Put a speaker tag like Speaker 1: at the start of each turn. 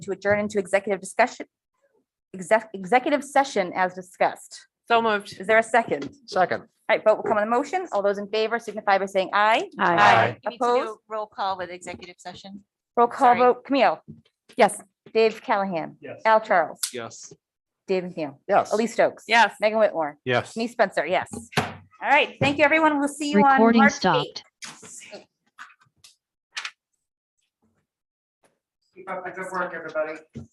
Speaker 1: to adjourn into executive discussion, exec, executive session as discussed.
Speaker 2: So moved.
Speaker 1: Is there a second? All
Speaker 3: Second.
Speaker 1: right, vote will come on the motion. All those in favor signify by saying aye.
Speaker 3: Aye.
Speaker 4: You need to do
Speaker 1: Opposed?
Speaker 4: a Roll call with executive session.
Speaker 1: Roll call
Speaker 4: Sorry.
Speaker 1: vote, Camille.
Speaker 5: Yes.
Speaker 1: Dave Callahan.
Speaker 3: Yes.
Speaker 1: Al Charles.
Speaker 3: Yes.
Speaker 1: Dave McNeil.
Speaker 3: Yes.
Speaker 1: Elise Stokes.
Speaker 2: Yes.
Speaker 1: Megan Whitmore.
Speaker 3: Yes.
Speaker 1: Me Spencer, yes. All right, thank you, everyone. We'll see you on
Speaker 6: Recording
Speaker 1: March
Speaker 6: stopped.
Speaker 1: 8th.
Speaker 7: Keep up the good work, everybody.